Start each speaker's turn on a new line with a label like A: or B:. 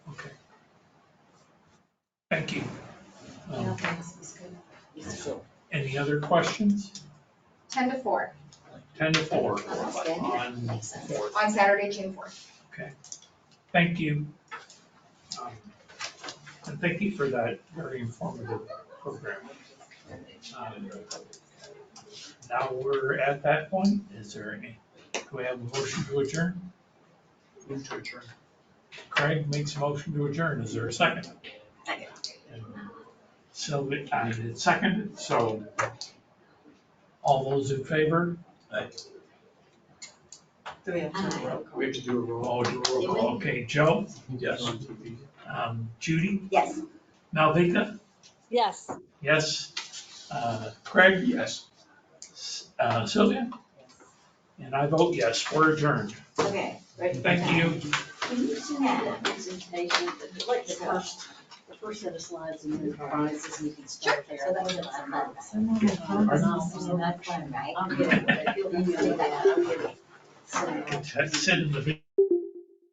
A: Thank you. Um,
B: Yeah, thanks, it's good.
A: Any other questions?
B: Ten to four,
A: Ten to four
B: Outstanding.
A: on
B: Makes sense.
A: fourth.
B: on Saturday, June fourth.
A: Thank you. Um, And thank you for that very informative program. Um, Now we're at that point. Is there any, do we have a motion to adjourn?
C: Move to adjourn.
A: Craig makes a motion to adjourn. Is there a second?
B: Second.
A: And Sylvia, I did second, so all those in favor?
D: Do we have time?
B: Uh,
C: We have to do a roll.
A: Oh, do a roll call. Okay, Joe,
C: Yes.
A: um, Judy,
D: Yes.
A: Malvika,
E: Yes.
A: yes, uh, Craig,
C: Yes.
A: Uh, Sylvia? And I vote yes, we're adjourned.
D: Okay, ready?
A: Thank you.
D: Can you send me that presentation, like the first, the first set of slides and then the bonuses, we can start there.
F: So that was about that. Someone
D: Yeah.
F: was also not fun, right?
D: I'll get it, but you'll email me that. I'll get it. So-
A: Sit in the